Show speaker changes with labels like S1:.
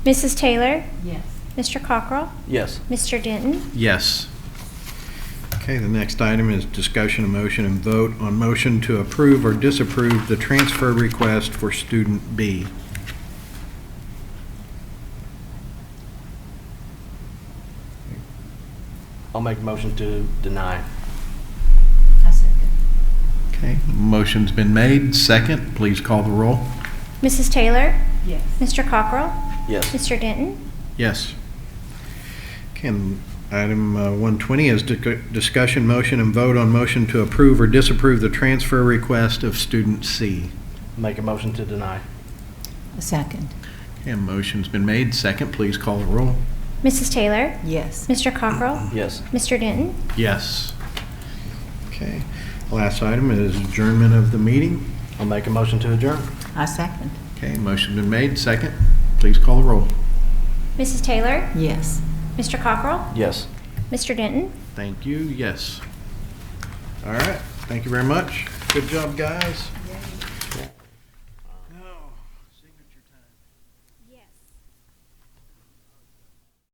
S1: Mrs. Taylor,
S2: Yes.
S1: Mr. Cockrell,
S3: Yes.
S1: Mr. Denton,
S4: Yes. Okay, the next item is discussion of motion and vote on motion to approve or disapprove the transfer request for student B.
S3: I'll make a motion to deny.
S2: I second.
S4: Okay, motion's been made. Second, please call the roll.
S1: Mrs. Taylor,
S2: Yes.
S1: Mr. Cockrell,
S3: Yes.
S1: Mr. Denton,
S4: Yes. Okay, and item uh, 120 is dic- discussion, motion, and vote on motion to approve or disapprove the transfer request of student C.
S3: Make a motion to deny.
S2: A second.
S4: And motion's been made. Second, please call the roll.
S1: Mrs. Taylor,
S2: Yes.
S1: Mr. Cockrell,
S3: Yes.
S1: Mr. Denton,
S4: Yes. Okay, last item is adjournment of the meeting.
S3: I'll make a motion to adjourn.
S2: I second.
S4: Okay, motion been made, second. Please call the roll.
S1: Mrs. Taylor,
S2: Yes.
S1: Mr. Cockrell,
S3: Yes.
S1: Mr. Denton.
S4: Thank you, yes. All right, thank you very much. Good job, guys.
S1: Yes.